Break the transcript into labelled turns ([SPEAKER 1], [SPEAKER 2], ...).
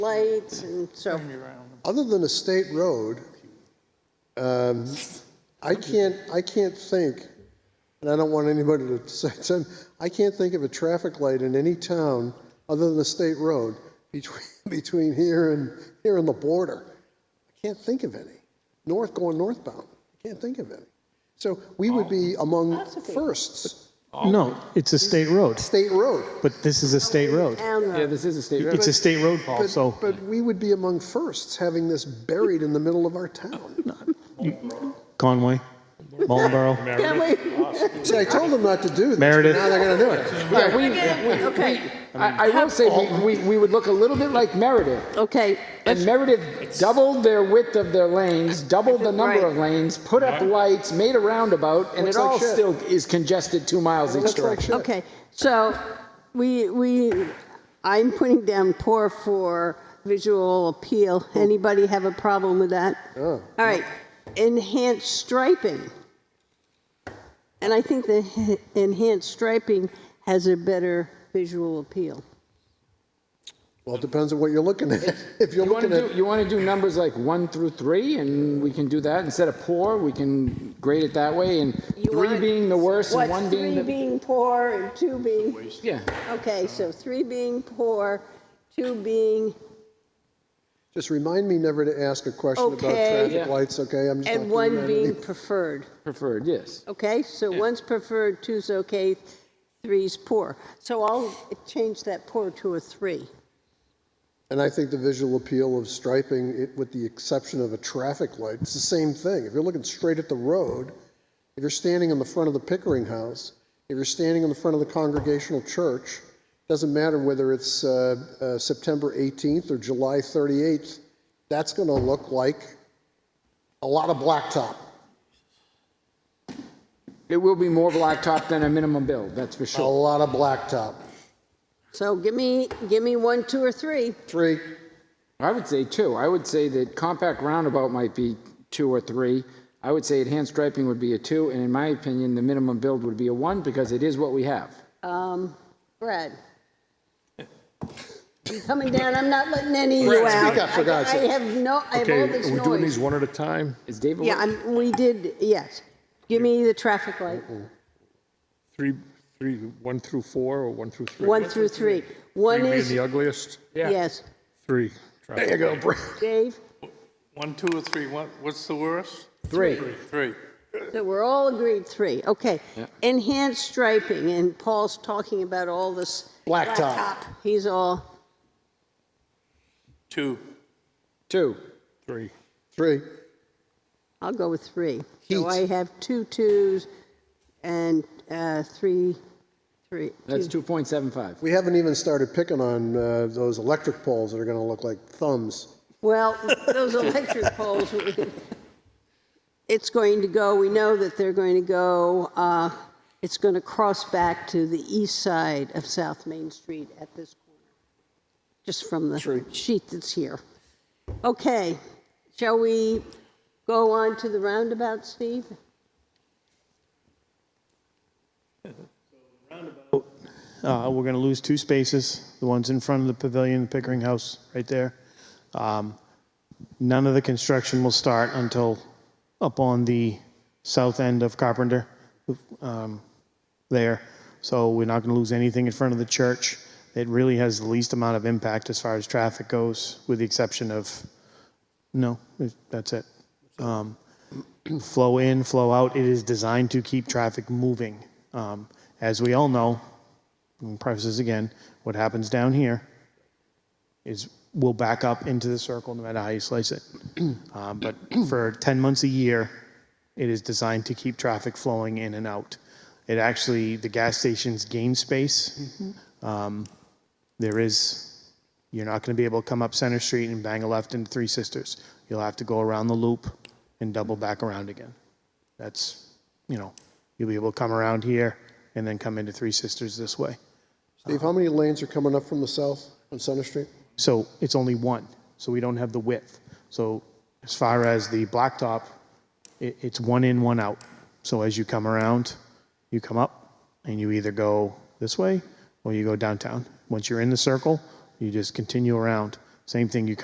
[SPEAKER 1] lights and so,
[SPEAKER 2] Other than a state road, um, I can't, I can't think, and I don't want anybody to say, some- I can't think of a traffic light in any town other than a state road between, between here and, here and the border. I can't think of any. North going northbound, I can't think of any. So we would be among firsts,
[SPEAKER 3] No, it's a state road,
[SPEAKER 2] state road.
[SPEAKER 3] but this is a state road.
[SPEAKER 1] town
[SPEAKER 4] Yeah,
[SPEAKER 1] road.
[SPEAKER 4] this is a state road.
[SPEAKER 3] It's a state road, Paul,
[SPEAKER 2] But-
[SPEAKER 3] so
[SPEAKER 2] But we would be among firsts having this buried in the middle of our town.
[SPEAKER 3] Conway, Mullenboro,
[SPEAKER 1] Can we,
[SPEAKER 2] See, I told them not to do this, but
[SPEAKER 3] Meredith.
[SPEAKER 2] now they're gonna do it.
[SPEAKER 4] Yeah, we,
[SPEAKER 1] okay,
[SPEAKER 4] I, I will say, we, we, we would look a little bit like Meredith.
[SPEAKER 1] okay,
[SPEAKER 4] And Meredith doubled their width of their lanes, doubled the number of lanes, put up lights, made a roundabout, and it
[SPEAKER 2] Looks like
[SPEAKER 4] all
[SPEAKER 2] shit.
[SPEAKER 4] still is congested two miles each
[SPEAKER 2] Looks like
[SPEAKER 4] direction.
[SPEAKER 2] shit.
[SPEAKER 1] okay. So we, we, I'm putting down poor for visual appeal. Anybody have a problem with that? All right, enhanced striping. And I think the enhanced striping has a better visual appeal.
[SPEAKER 2] Well, it depends on what you're looking at. If you're
[SPEAKER 4] You want
[SPEAKER 2] looking
[SPEAKER 4] to
[SPEAKER 2] at,
[SPEAKER 4] do, you want to do numbers like one through three, and we can do that instead of poor. We can grade it that way, and
[SPEAKER 1] You
[SPEAKER 4] three
[SPEAKER 1] want-
[SPEAKER 4] being the worst, and
[SPEAKER 1] What,
[SPEAKER 4] one
[SPEAKER 1] three
[SPEAKER 4] being the
[SPEAKER 1] being poor and two being,
[SPEAKER 4] yeah.
[SPEAKER 1] okay, so three being poor, two being,
[SPEAKER 2] just remind me never to ask a question about
[SPEAKER 1] Okay.
[SPEAKER 2] traffic
[SPEAKER 4] Yeah.
[SPEAKER 2] lights, okay? I'm just
[SPEAKER 1] and
[SPEAKER 2] not doing
[SPEAKER 1] one
[SPEAKER 2] that
[SPEAKER 1] being
[SPEAKER 2] any-
[SPEAKER 1] preferred,
[SPEAKER 4] Preferred, yes.
[SPEAKER 1] okay? So one's preferred, two's okay, three's poor. So I'll change that poor to a three.
[SPEAKER 2] And I think the visual appeal of striping it with the exception of a traffic light, it's the same thing. If you're looking straight at the road, if you're standing in the front of the Pickering House, if you're standing in the front of the Congregational Church, doesn't matter whether it's uh, uh, September 18th or July 38th, that's gonna look like a lot of blacktop.
[SPEAKER 4] It will be more blacktop than a minimum build, that's for
[SPEAKER 2] A
[SPEAKER 4] sure.
[SPEAKER 2] lot of blacktop.
[SPEAKER 1] So give me, give me one, two, or three.
[SPEAKER 2] Three,
[SPEAKER 4] I would say two. I would say that compact roundabout might be two or three. I would say enhanced striping would be a two, and in my opinion, the minimum build would be a one because it is what we have.
[SPEAKER 1] Um, Brad? I'm coming down, I'm not letting any of you out.
[SPEAKER 2] up, for God's
[SPEAKER 1] I-
[SPEAKER 2] sake.
[SPEAKER 1] I have no, I have
[SPEAKER 5] Okay,
[SPEAKER 1] all this
[SPEAKER 5] are we doing
[SPEAKER 1] noise.
[SPEAKER 5] these one at a time?
[SPEAKER 4] Is David?
[SPEAKER 1] Yeah, I'm, we did, yes. Give me the traffic light,
[SPEAKER 5] Three, three, one through four or one through three?
[SPEAKER 1] one through three. One
[SPEAKER 5] Three being
[SPEAKER 1] is,
[SPEAKER 5] the ugliest?
[SPEAKER 1] yes,
[SPEAKER 5] Three. There you go, Brad.
[SPEAKER 1] Dave,
[SPEAKER 6] One, two, or three, what, what's the worst?
[SPEAKER 4] Three.
[SPEAKER 6] Three.
[SPEAKER 1] so we're all agreed three, okay. Enhanced striping, and Paul's talking about all this.
[SPEAKER 2] Blacktop.
[SPEAKER 1] He's all,
[SPEAKER 6] Two.
[SPEAKER 4] two.
[SPEAKER 5] Three.
[SPEAKER 2] three.
[SPEAKER 1] I'll go with three.
[SPEAKER 2] Heat.
[SPEAKER 1] So I have two twos and uh, three, three.
[SPEAKER 4] That's two point seven five.
[SPEAKER 2] We haven't even started picking on uh, those electric poles that are going to look like thumbs.
[SPEAKER 1] Well, those electric poles, it's going to go, we know that they're going to go, uh, it's going to cross back to the east side of South Main Street at this corner, just from the sheet that's here. Okay, shall we go on to the roundabout, Steve?
[SPEAKER 3] uh, we're going to lose two spaces, the ones in front of the pavilion, the Pickering House, right there. Um, None of the construction will start until up on the south end of Carpenter um, there. So we're not going to lose anything in front of the church. It really has the least amount of impact as far as traffic goes, with the exception of, no, it- that's it. Um, flow in, flow out. It is designed to keep traffic moving. Um, as we all know, and preface this again, what happens down here is we'll back up into the circle no matter how you slice it. Um, but for 10 months a year, it is designed to keep traffic flowing in and out. It actually, the gas stations gain space. Um, there is, you're not going to be able to come up Center Street and bang a left into Three Sisters. You'll have to go around the loop and double back around again. That's, you know, you'll be able to come around here and then come into Three Sisters this way.
[SPEAKER 2] Steve, how many lanes are coming up from the south on Center Street?
[SPEAKER 3] So it's only one, so we don't have the width. So as far as the blacktop, it, it's one in, one out. So as you come around, you come up and you either go this way or you go downtown. Once you're in the circle, you just continue around. Same thing, you